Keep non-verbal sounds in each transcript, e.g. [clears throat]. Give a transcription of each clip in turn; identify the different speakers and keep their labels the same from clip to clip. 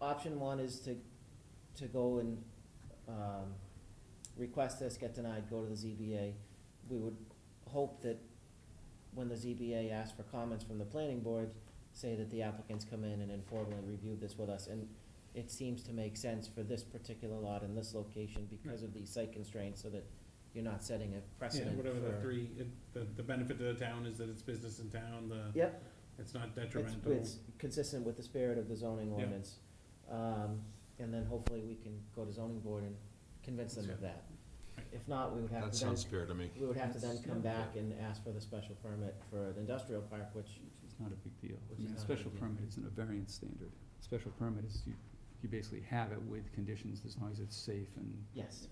Speaker 1: option one is to, to go and, um, request this, get denied, go to the ZBA. We would hope that when the ZBA asks for comments from the planning board, say that the applicants come in and informally review this with us. And it seems to make sense for this particular lot in this location because of these site constraints, so that you're not setting a
Speaker 2: Yeah,
Speaker 1: precedent
Speaker 2: whatever the
Speaker 1: for-
Speaker 2: three, it- the, the benefit to the town is that it's business in town, the,
Speaker 1: Yep,
Speaker 2: it's not
Speaker 1: it's,
Speaker 2: detrimental.
Speaker 1: it's consistent with the spirit of the zoning
Speaker 2: Yeah.
Speaker 1: ordinance. Um, and then hopefully we can go to zoning board and convince them of that.
Speaker 2: Right.
Speaker 1: If not, we would have
Speaker 3: That
Speaker 1: to then,
Speaker 3: sounds fair to me.
Speaker 1: we would have to then
Speaker 4: That's-
Speaker 1: come
Speaker 4: yeah.
Speaker 1: back and ask for the special permit for an industrial park, which,
Speaker 4: It's not a big deal. I
Speaker 1: Which
Speaker 4: mean,
Speaker 1: is not a
Speaker 4: special
Speaker 1: big deal.
Speaker 4: permit isn't a variance standard. Special permit is you, you basically have it with conditions as long as it's safe and,
Speaker 1: yes,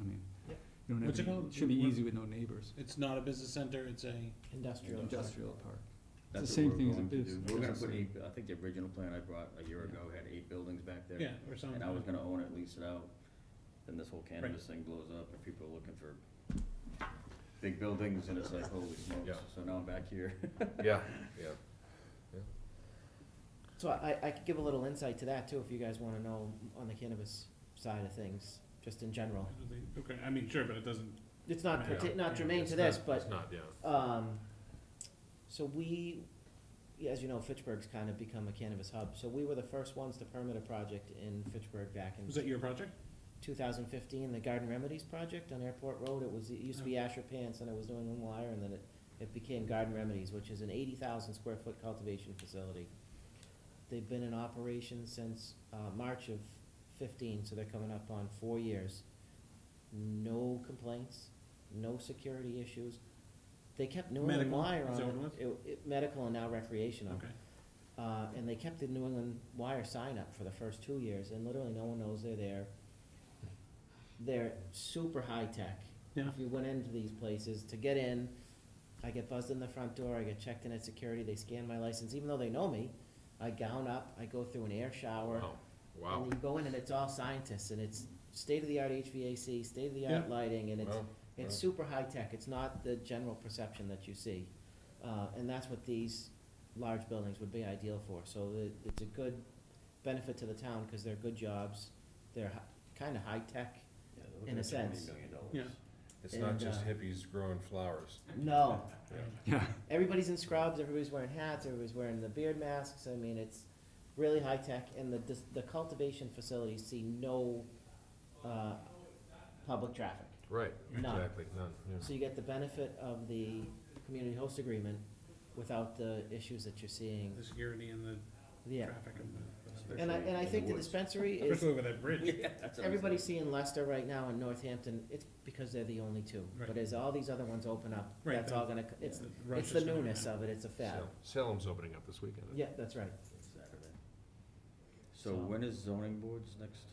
Speaker 4: I mean,
Speaker 1: Yep.
Speaker 4: you don't have,
Speaker 2: What's it
Speaker 4: to-
Speaker 2: called?
Speaker 4: it should be
Speaker 2: What-
Speaker 4: easy with no neighbors.
Speaker 2: It's not a business center, it's a,
Speaker 1: industrial park.
Speaker 4: Industrial park. It's the
Speaker 5: That's what
Speaker 4: same
Speaker 5: we're
Speaker 4: thing as a
Speaker 5: going to do.
Speaker 4: business.
Speaker 5: We're gonna
Speaker 4: It's the
Speaker 5: put
Speaker 4: same.
Speaker 5: eight, I think the original plan I brought a year ago had eight buildings back there.
Speaker 2: yeah, or something.
Speaker 5: And I was gonna own it, lease it out, then this whole cannabis thing blows up, and people are looking for big buildings, and it's like, holy
Speaker 3: Yeah.
Speaker 5: smokes, so now I'm back
Speaker 3: [laughs]
Speaker 5: here.
Speaker 3: Yeah, yeah.
Speaker 1: So I, I could give a little insight to that too, if you guys wanna know on the cannabis side of things, just in general.
Speaker 2: Okay, I mean, sure, but it doesn't,
Speaker 1: It's not,
Speaker 2: Yeah,
Speaker 1: parti- not
Speaker 2: yeah,
Speaker 1: germane
Speaker 3: It's
Speaker 1: to
Speaker 3: not-
Speaker 1: this, but
Speaker 3: It's not, yeah.
Speaker 1: Um, so we, yeah, as you know, Fitchburg's kind of become a cannabis hub, so we were the first ones to permit a project in Fitchburg back
Speaker 2: was
Speaker 1: in
Speaker 2: that your project?
Speaker 1: two thousand fifteen, the Garden Remedies Project on Airport Road, it was, it used to be Asher Pants, and it was New England Wire, and then it, it became Garden Remedies, which is an eighty thousand square foot cultivation facility. They've been in operation since, uh, March of fifteen, so they're coming up on four years. No complaints, no security issues. They kept New England
Speaker 2: Medical,
Speaker 1: Wire on.
Speaker 2: is that what it
Speaker 1: it- it- medical and now recreational.
Speaker 2: Okay,
Speaker 1: Uh, and they kept the New England Wire sign up for the first two years, and literally no one knows they're there. They're super high-tech.
Speaker 2: Yeah.
Speaker 1: If you went into these places, to get in, I get buzzed in the front door, I get checked in at security, they scan my license, even though they know me. I gown up, I go through an air shower.
Speaker 3: Wow,
Speaker 1: And
Speaker 3: Oh, wow.
Speaker 1: you go in and it's all scientists, and it's state-of-the-art HVAC, state-of-the-art
Speaker 2: Yeah.
Speaker 1: lighting, and it's,
Speaker 3: Wow.
Speaker 1: it's
Speaker 3: Wow.
Speaker 1: super high-tech, it's not the general perception that you see. Uh, and that's what these large buildings would be ideal for, so it, it's a good benefit to the town, cause they're good jobs, they're hi- kinda high-tech.
Speaker 5: Yeah, they're looking
Speaker 1: In a
Speaker 5: at
Speaker 1: sense.
Speaker 5: $20 million dollars.
Speaker 2: yeah.
Speaker 3: It's not
Speaker 1: And,
Speaker 3: just
Speaker 1: uh,
Speaker 3: hippies growing flowers.
Speaker 1: No,
Speaker 4: Yeah,
Speaker 1: everybody's in scrubs, everybody's wearing hats, everybody's wearing the beard masks, I mean, it's really high-tech, and the, dis- the cultivation facilities see no, uh, public traffic.
Speaker 3: Right,
Speaker 1: None.
Speaker 3: exactly, none, yeah.
Speaker 1: So you get the benefit of the community host agreement without the issues that you're seeing,
Speaker 2: The security and the
Speaker 1: yeah.
Speaker 2: traffic and the,
Speaker 1: And I,
Speaker 5: Especially
Speaker 1: and I
Speaker 5: in the
Speaker 1: think the
Speaker 5: woods.
Speaker 1: dispensary is,
Speaker 2: especially with that
Speaker 1: [laughs]
Speaker 2: bridge.
Speaker 5: Yeah, that's what I'm
Speaker 1: everybody's
Speaker 5: saying.
Speaker 1: seeing Leicester right now in Northampton, it's because they're the only two. But
Speaker 2: Right.
Speaker 1: as all these other ones open up,
Speaker 2: Right,
Speaker 1: that's all gonna, c- it's,
Speaker 2: rush
Speaker 1: it's the
Speaker 2: is gonna
Speaker 1: newness
Speaker 2: happen.
Speaker 1: of it, it's a fad.
Speaker 3: Sal- Salem's opening up this weekend.
Speaker 1: Yeah, that's right.
Speaker 5: Saturday. So
Speaker 1: So-
Speaker 5: when is zoning boards next?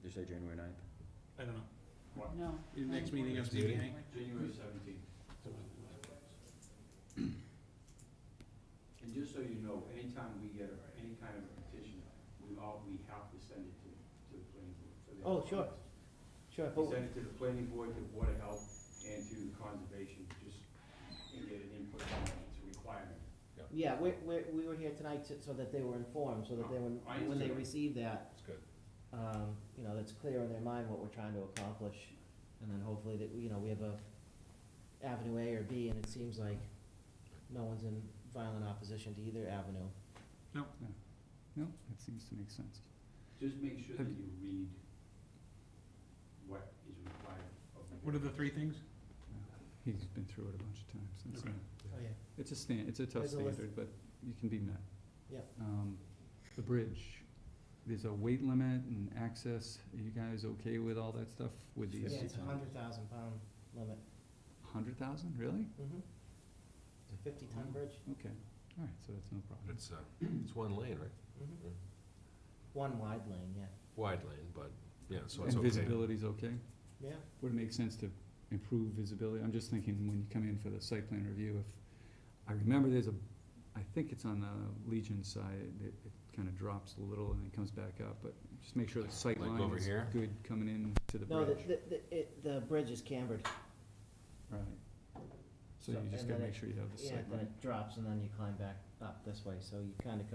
Speaker 5: Did you say January ninth?
Speaker 2: I don't know.
Speaker 4: No.
Speaker 2: Your next meeting of
Speaker 3: Next meeting.
Speaker 2: ZBA?
Speaker 6: January seventeenth. And just so you know, anytime we get a- any kind of petition, we all, we have to send it to, to the planning board. for their
Speaker 1: Oh, sure.
Speaker 6: comments.
Speaker 1: Sure,
Speaker 6: We
Speaker 1: but
Speaker 6: send it to the planning board, to Board of Health, and to conservation, just, and get an input on it, it's a requirement.
Speaker 1: Yeah, we, we, we were here tonight to- so that they were informed, so that they were,
Speaker 6: I
Speaker 1: when they
Speaker 6: understand.
Speaker 1: receive that,
Speaker 3: It's good.
Speaker 1: um, you know, that's clear in their mind what we're trying to accomplish. And then hopefully that, you know, we have a avenue A or B, and it seems like no one's in violent opposition to either avenue.
Speaker 4: no, that seems to make sense.
Speaker 6: Just make sure
Speaker 4: Have
Speaker 6: that you read what is required of the.
Speaker 2: What are the three things?
Speaker 4: He's been through it a bunch of times. It's,
Speaker 2: Okay.
Speaker 4: uh,
Speaker 1: Oh, yeah.
Speaker 4: It's a stan, it's a tough
Speaker 1: There's a list.
Speaker 4: standard, but you can be met.
Speaker 1: Yep.
Speaker 4: Um, the bridge, there's a weight limit and access, are you guys okay with all that stuff with
Speaker 1: Yeah,
Speaker 4: these?
Speaker 1: it's a hundred thousand pound limit.
Speaker 4: Hundred thousand, really?
Speaker 1: Mm-hmm. It's a fifty ton bridge.
Speaker 4: Okay, alright, so that's no problem.
Speaker 3: It's, uh, it's one lane, right?
Speaker 1: [clears throat] Mm-hmm.
Speaker 3: Yeah.
Speaker 1: One wide lane, yeah.
Speaker 3: Wide lane, but, yeah, so it's
Speaker 4: And
Speaker 3: okay.
Speaker 4: visibility's okay?
Speaker 1: Yeah.
Speaker 4: Would it make sense to improve visibility? I'm just thinking when you come in for the site plan review, if, I remember there's a, I think it's on the Legion side, it, it kinda drops a little and then comes back up, but just make sure the sight
Speaker 3: Like
Speaker 4: line
Speaker 3: over
Speaker 4: is
Speaker 3: here?
Speaker 4: good coming in to the bridge.
Speaker 1: No, the, the, the, it, the bridge is cambered.
Speaker 4: Right.
Speaker 1: So-
Speaker 4: So you just
Speaker 1: and
Speaker 4: gotta
Speaker 1: then
Speaker 4: make
Speaker 1: it-
Speaker 4: sure you have the
Speaker 1: Yeah,
Speaker 4: sight
Speaker 1: then
Speaker 4: line.
Speaker 1: it drops and then you climb back up this way, so you kinda come